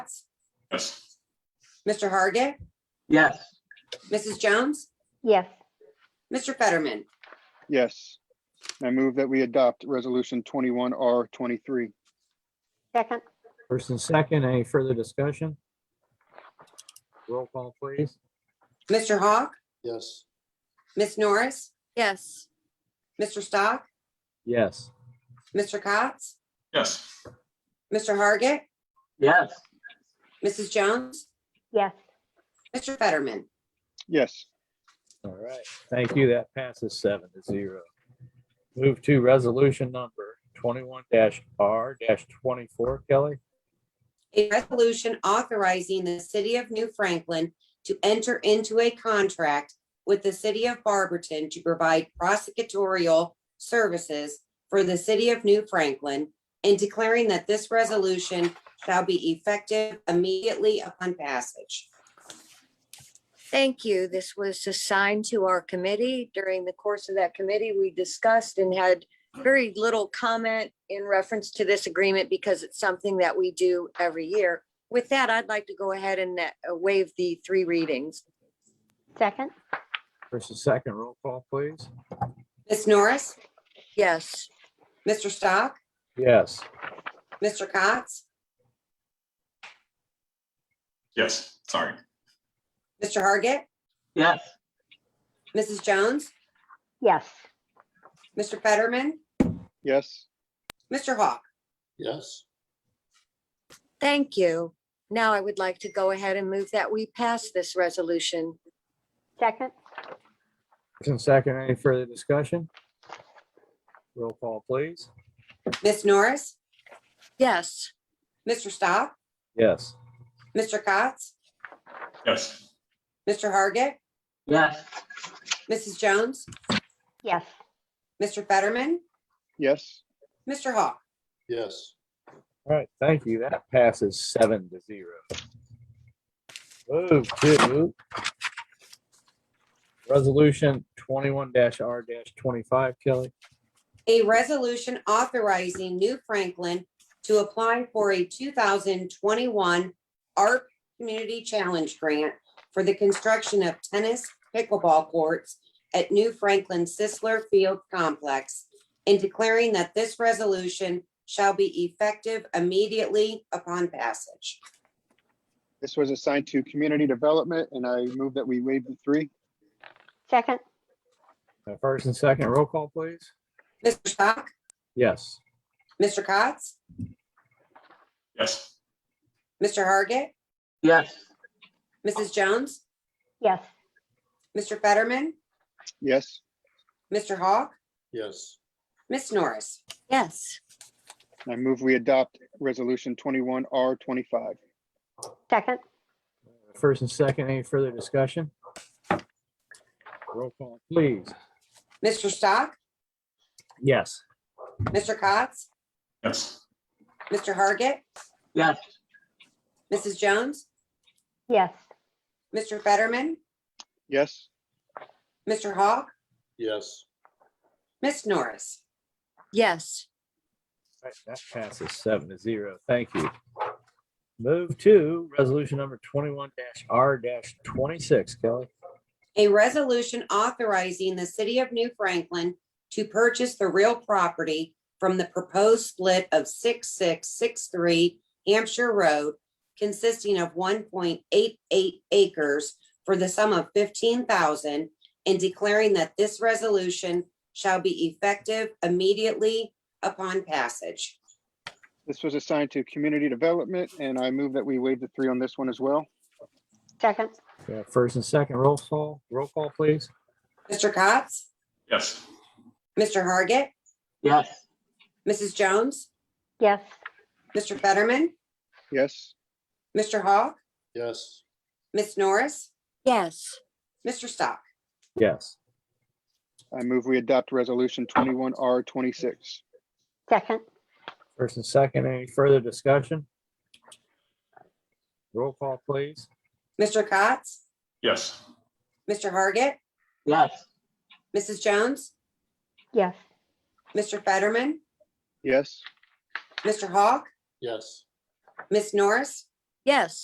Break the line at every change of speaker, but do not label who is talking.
Yes.
Mr. Hargit,
Yes.
Mrs. Jones,
yes,
Mr. Fetterman.
Yes. I move that we adopt Resolution 21R23.
second,
First and second, any further discussion? Roll call, please.
Mr. Hawk,
yes,
Miss Norris,
yes,
Mr. Stock,
Yes.
Mr. Cotts,
Yes.
Mr. Hargit,
Yes.
Mrs. Jones,
yes,
Mr. Fetterman.
Yes.
All right, thank you. That passes seven to zero. Move to resolution number twenty-one R twenty-four, Kelly.
A resolution authorizing the city of New Franklin to enter into a contract with the city of Barberton to provide prosecutorial services for the city of New Franklin and declaring that this resolution shall be effective immediately upon passage.
thank you. This was assigned to our committee. During the course of that committee, we discussed and had very little comment in reference to this agreement because it's something that we do every year. With that, I'd like to go ahead and uh, waive the three readings.
second,
First and second, roll call, please.
Ms. Norris,
Yes,
Mr. Stock,
Yes.
Mr. Cotts,
Yes, sorry.
Mr. Hargit,
Yes.
Mrs. Jones,
yes,
Mr. Fetterman,
Yes.
Mr. Hawk.
yes,
thank you. Now I would like to go ahead and move that we pass this resolution.
second,
First and second, any further discussion? Roll call, please.
Ms. Norris,
Yes.
Mr. Stock,
Yes.
Mr. Cotts,
Yes.
Mr. Hargit,
Yes.
Mrs. Jones,
yes,
Mr. Fetterman,
Yes.
Mr. Hawk.
yes,
All right, thank you. That passes seven to zero. Move to resolution twenty-one R twenty-five, Kelly.
A resolution authorizing New Franklin to apply for a two thousand twenty-one ARP Community Challenge Grant for the construction of tennis pickleball courts at New Franklin Sisler Field Complex and declaring that this resolution shall be effective immediately upon passage.
This was assigned to Community Development, and I move that we waive the three.
second,
Uh, First and second, roll call, please.
Mr. Stock,
Yes.
Mr. Cotts,
Yes.
Mr. Hargit,
Yes.
Mrs. Jones,
yes,
Mr. Fetterman,
Yes.
Mr. Hawk,
yes,
Miss Norris.
Yes,
I move we adopt Resolution 21R25.
second,
First and second, any further discussion? Roll call, please.
Mr. Stock,
Yes.
Mr. Cotts,
Yes.
Mr. Hargit,
Yes.
Mrs. Jones,
yes,
Mr. Fetterman,
Yes.
Mr. Hawk,
yes,
Miss Norris.
yes,
Right, That passes seven to zero. Thank you. Move to resolution number twenty-one R twenty-six, Kelly.
A resolution authorizing the city of New Franklin to purchase the real property from the proposed split of six, six, six, three Hampshire Road consisting of one point eight eight acres for the sum of fifteen thousand and declaring that this resolution shall be effective immediately upon passage.
This was assigned to Community Development, and I move that we waive the three on this one as well.
second,
Yeah, Uh, First and second, roll call, roll call, please.
Mr. Cotts,
Yes.
Mr. Hargit,
Yes.
Mrs. Jones,
yes,
Mr. Fetterman,
Yes.
Mr. Hawk,
yes,
Miss Norris,
yes,
Mr. Stock.
Yes.
I move we adopt Resolution 21R26.
second,
First and second, any further discussion? Roll call, please.
Mr. Cotts,
Yes.
Mr. Hargit,
Yes.
Mrs. Jones,
yes,
Mr. Fetterman,
Yes.
Mr. Hawk,
yes.
Miss Norris,
yes.